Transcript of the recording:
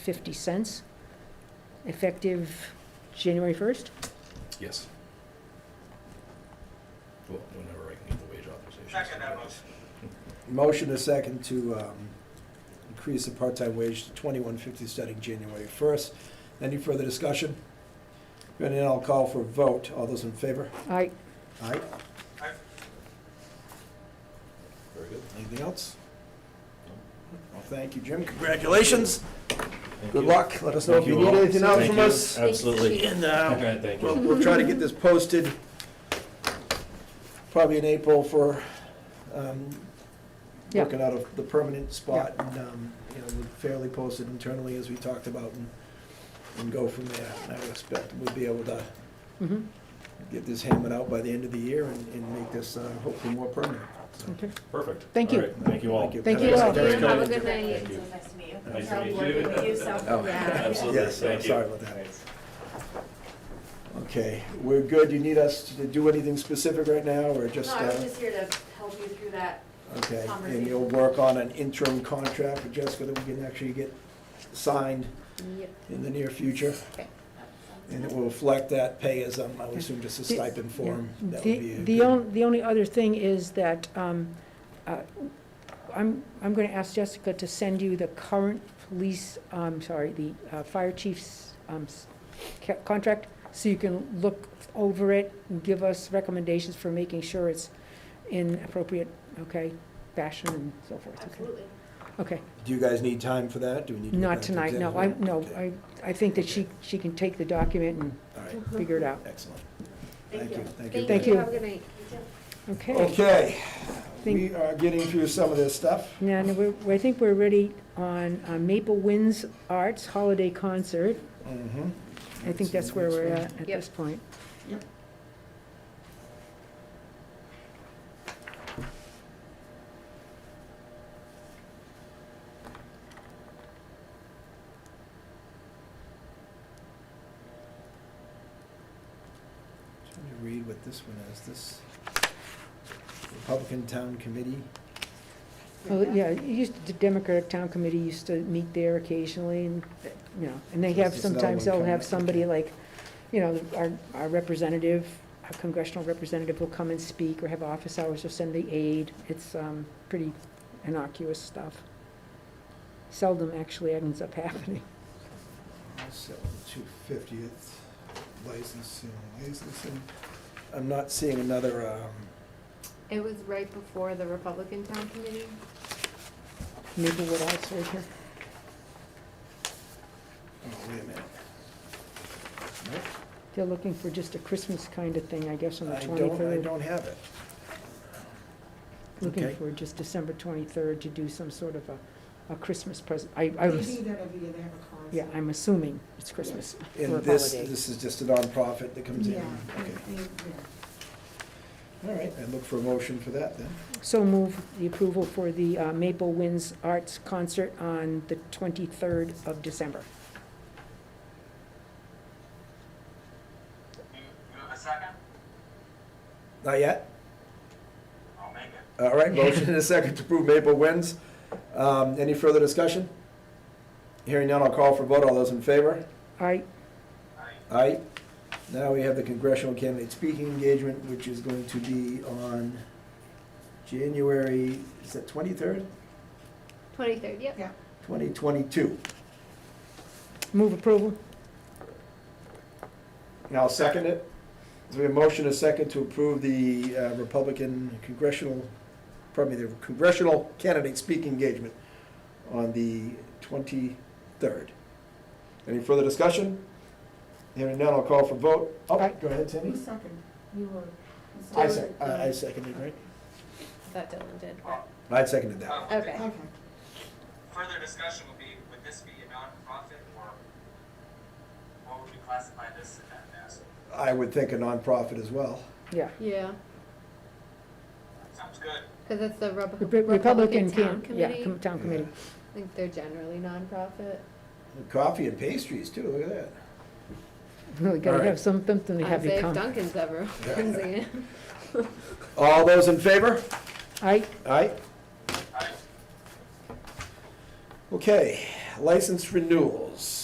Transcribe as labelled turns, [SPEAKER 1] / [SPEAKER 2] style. [SPEAKER 1] 50 cents, effective January 1st.
[SPEAKER 2] Yes. Well, whenever I can get the wage authorization.
[SPEAKER 3] Second that motion.
[SPEAKER 4] Motion a second to um, increase the part-time wage to twenty-one fifty starting January first. Any further discussion? Hearing none, I'll call for a vote. All those in favor?
[SPEAKER 1] I,
[SPEAKER 4] Aye.
[SPEAKER 3] I,
[SPEAKER 2] Very good.
[SPEAKER 4] Anything else?
[SPEAKER 2] No.
[SPEAKER 4] Well, thank you, Jim. Congratulations.
[SPEAKER 2] Thank
[SPEAKER 4] Good
[SPEAKER 2] you.
[SPEAKER 4] luck. Let us know if
[SPEAKER 2] Thank
[SPEAKER 4] you
[SPEAKER 2] you
[SPEAKER 4] need
[SPEAKER 2] all.
[SPEAKER 4] anything else
[SPEAKER 2] Thank
[SPEAKER 4] from
[SPEAKER 2] you.
[SPEAKER 4] us.
[SPEAKER 2] Absolutely.
[SPEAKER 4] And uh,
[SPEAKER 2] Okay, thank
[SPEAKER 4] we'll,
[SPEAKER 2] you.
[SPEAKER 4] we'll try to get this posted probably in April for um,
[SPEAKER 1] Yeah.
[SPEAKER 4] working out of the permanent spot and, um, you know, we'll fairly posted internally as we talked about and, and go from there. And I would expect we'll be able to
[SPEAKER 1] mhm,
[SPEAKER 4] get this hammered out by the end of the year and, and make this uh, hopefully more permanent. So,
[SPEAKER 1] okay.
[SPEAKER 2] Perfect.
[SPEAKER 1] Thank
[SPEAKER 2] All
[SPEAKER 1] you.
[SPEAKER 2] right, Thank you all.
[SPEAKER 4] Thank you.
[SPEAKER 1] Thank
[SPEAKER 4] Have
[SPEAKER 1] you
[SPEAKER 4] a
[SPEAKER 1] all.
[SPEAKER 4] nice day.
[SPEAKER 5] Have a good night.
[SPEAKER 2] Thank you.
[SPEAKER 5] nice to meet you.
[SPEAKER 2] Nice to
[SPEAKER 5] Proud
[SPEAKER 2] meet
[SPEAKER 5] working
[SPEAKER 2] you.
[SPEAKER 5] with you, so,
[SPEAKER 4] Oh.
[SPEAKER 5] yeah.
[SPEAKER 2] Absolutely.
[SPEAKER 4] Yes, I'm
[SPEAKER 2] Thank you.
[SPEAKER 4] sorry about that. Okay, we're good. You need us to do anything specific right now or just?
[SPEAKER 5] No, I was
[SPEAKER 4] uh,
[SPEAKER 5] just here to help you through that.
[SPEAKER 4] Okay, and
[SPEAKER 5] conversation.
[SPEAKER 4] you'll work on an interim contract with Jessica that we can actually get signed in the near future? And it will reflect that pay as, um, I would assume, just a
[SPEAKER 1] The-
[SPEAKER 4] stipend form?
[SPEAKER 1] Yeah.
[SPEAKER 4] That would be
[SPEAKER 1] The,
[SPEAKER 4] a
[SPEAKER 1] the
[SPEAKER 4] good-
[SPEAKER 1] only, the only other thing is that, um, uh, I'm, I'm gonna ask Jessica to send you the current police, I'm sorry, the, uh, fire chief's, um, s- ca- contract, so you can look over it and give us recommendations for making sure it's in appropriate, okay, fashion and so forth, okay?
[SPEAKER 5] Absolutely.
[SPEAKER 1] Okay,
[SPEAKER 4] Do you guys need time for that? Do we need to? go
[SPEAKER 1] not
[SPEAKER 4] back to
[SPEAKER 1] tonight, no, I,
[SPEAKER 4] executive?
[SPEAKER 1] no,
[SPEAKER 4] Okay,
[SPEAKER 1] I, I think that she, she can take the document and
[SPEAKER 4] All right,
[SPEAKER 1] figure it out,
[SPEAKER 4] excellent.
[SPEAKER 5] Thank you.
[SPEAKER 4] Thank you.
[SPEAKER 1] Thank you.
[SPEAKER 6] Have a good night.
[SPEAKER 5] You too.
[SPEAKER 1] Mm-hmm. okay?
[SPEAKER 4] Okay,
[SPEAKER 1] Thank-
[SPEAKER 4] we are getting through some of this stuff.
[SPEAKER 1] Yeah, no, we're- I think we're ready on uh, Maple Winds Arts Holiday Concert.
[SPEAKER 4] Mhm.
[SPEAKER 1] I think that's where we're at at
[SPEAKER 6] Yep.
[SPEAKER 1] this point.
[SPEAKER 4] Yep. Trying to read what this one is, this Republican Town Committee.
[SPEAKER 1] Oh, yeah, it used to- the Democratic Town Committee used to meet there occasionally and, you know, and they
[SPEAKER 4] So
[SPEAKER 1] have,
[SPEAKER 4] this is another
[SPEAKER 1] sometimes
[SPEAKER 4] one
[SPEAKER 1] they'll
[SPEAKER 4] coming
[SPEAKER 1] have
[SPEAKER 4] up,
[SPEAKER 1] somebody
[SPEAKER 4] okay.
[SPEAKER 1] like, you know, our, our representative, our congressional representative will come and speak or have office hours or send the aide. It's, um, pretty innocuous stuff. Seldom actually ends up happening.
[SPEAKER 4] Two fiftieth licensing, licensing. I'm not seeing another, um,
[SPEAKER 6] It was right before the Republican Town Committee.
[SPEAKER 1] Maybe what I said here.
[SPEAKER 4] oh, wait a minute. Nope.
[SPEAKER 1] They're looking for just a Christmas kind of thing, I guess, on the
[SPEAKER 4] I don't, I
[SPEAKER 1] twenty-third.
[SPEAKER 4] don't have it.
[SPEAKER 1] Looking
[SPEAKER 4] okay.
[SPEAKER 1] for just December twenty-third to do some sort of a, a Christmas present. I, I was,
[SPEAKER 7] that'll be, they have a concert.
[SPEAKER 1] yeah, I'm assuming it's Christmas for a
[SPEAKER 4] And this,
[SPEAKER 1] holiday.
[SPEAKER 4] this is just a nonprofit that comes in?
[SPEAKER 7] Yeah,
[SPEAKER 4] Okay,
[SPEAKER 7] they- they- yeah.
[SPEAKER 4] all right, I look for a motion for that then.
[SPEAKER 1] So move the approval for the uh, Maple Winds Arts Concert on the twenty-third of December.
[SPEAKER 3] you, you have a second?
[SPEAKER 4] Not yet?
[SPEAKER 3] I'll make it.
[SPEAKER 4] All right, motion and a second to approve Maple Winds. Um, any further discussion? Hearing none, I'll call for vote, all those in favor?
[SPEAKER 1] I,
[SPEAKER 3] I,
[SPEAKER 4] Aye. Now we have the congressional candidate speaking engagement, which is going to be on January, is that twenty-third?
[SPEAKER 6] Twenty-third, yep.
[SPEAKER 4] Twenty twenty-two.
[SPEAKER 1] move approval.
[SPEAKER 4] And I'll second it. So we have a motion, and a second, to approve the uh, Republican congressional, pardon me, the congressional candidate speaking engagement on the 23rd. Any further discussion? Hearing none, I'll call for vote. Oh,
[SPEAKER 1] Aye.
[SPEAKER 4] go ahead, Sandy.
[SPEAKER 7] Who seconded? You were.
[SPEAKER 4] I sec, I I seconded, right?
[SPEAKER 6] That Dylan did.
[SPEAKER 3] well,
[SPEAKER 4] I seconded that.
[SPEAKER 3] uh,
[SPEAKER 6] Okay.
[SPEAKER 7] Okay.
[SPEAKER 3] further discussion would be, would this be a nonprofit or what would we classify this event as?
[SPEAKER 4] I would think a nonprofit as well.
[SPEAKER 1] Yeah,
[SPEAKER 6] Yeah,
[SPEAKER 3] Sounds good.
[SPEAKER 6] because it's the Rep-
[SPEAKER 1] Rep-
[SPEAKER 6] Republican
[SPEAKER 1] Republican
[SPEAKER 6] Town
[SPEAKER 1] can, yeah,
[SPEAKER 6] Committee.
[SPEAKER 1] com- town committee.
[SPEAKER 6] I think they're generally nonprofit.
[SPEAKER 4] Coffee and pastries, too, look at that.
[SPEAKER 1] We gotta
[SPEAKER 4] Alright.
[SPEAKER 1] have some- something to have
[SPEAKER 6] I'd
[SPEAKER 1] you
[SPEAKER 6] say if
[SPEAKER 1] come.
[SPEAKER 6] Duncan's ever organizing it.
[SPEAKER 4] All those in favor?
[SPEAKER 1] I,
[SPEAKER 4] Aye.
[SPEAKER 3] I,
[SPEAKER 4] Okay, license renewals.